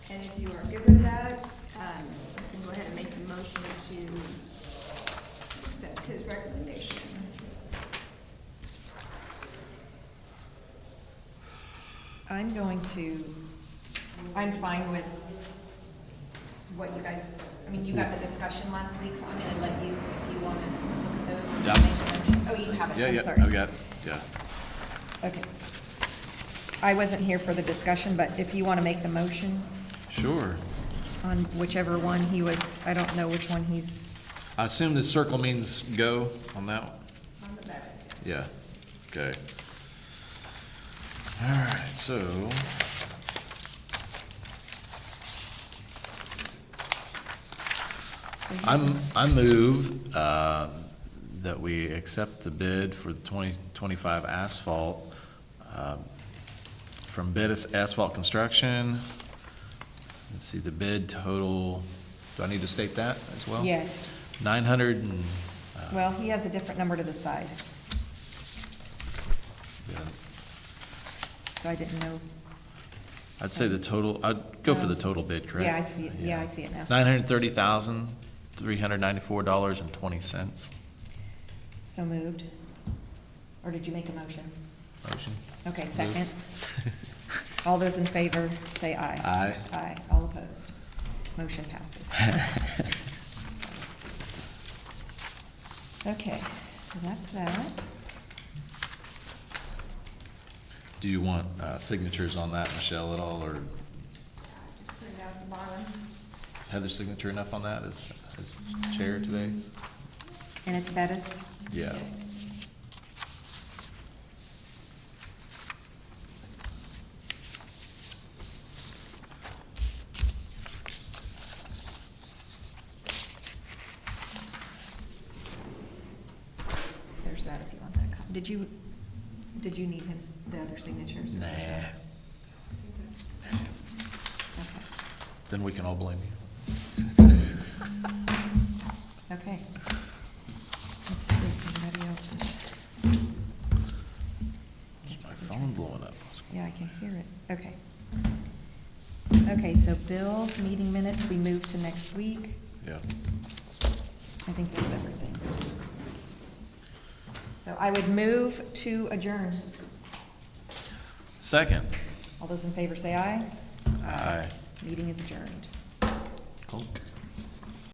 And if you are good with that, um, you can go ahead and make the motion to accept his recommendation. I'm going to, I'm fine with what you guys, I mean, you got the discussion last week, so I'm gonna let you, if you wanna look at those. and Yeah. make a motion. Oh, you have Yeah, it, I'm yeah, sorry. I've got, yeah. Okay. I wasn't here for the discussion, but if you wanna make the motion Sure. on whichever one he was, I don't know which one he's, I assume the circle means go on that one? On the back, it says. Yeah, okay. All right, so. I'm, I move, uh, that we accept the bid for the twenty twenty-five asphalt, um, from Bettis Asphalt Construction. Let's see, the bid total, do I need to state that as well? yes. Nine hundred and, Well, he has a different number to the side, yeah, so I didn't know. I'd say the total, I'd go for the Um, total bid, correct? Yeah, I see, it. yeah, I see it now. Nine hundred thirty thousand, three hundred ninety-four dollars and twenty cents. So moved. Or did you make a motion? Motion? Okay, second. All those in favor, say aye. Aye. Aye, all opposed. Motion passes. Okay, so that's that. Do you want, uh, signatures on that, Michelle, at all, or Just put it down at the bottom. Heather's signature enough on that as, as chair today? And it's Bettis? Yeah. Yes. There's that if you want that. copy. Did you, did you need his, the other signatures? or Nah, just- I think that's- Okay. then we can all blame you. Okay. Let's see if anybody else is. Is my phone blowing up? Yeah, I can hear it. Okay. Okay, so bills, meeting minutes, we move to next week. Yeah. I think that's everything. So I would move to adjourn. Second. All those in favor say aye. Aye. Meeting is adjourned. Cool.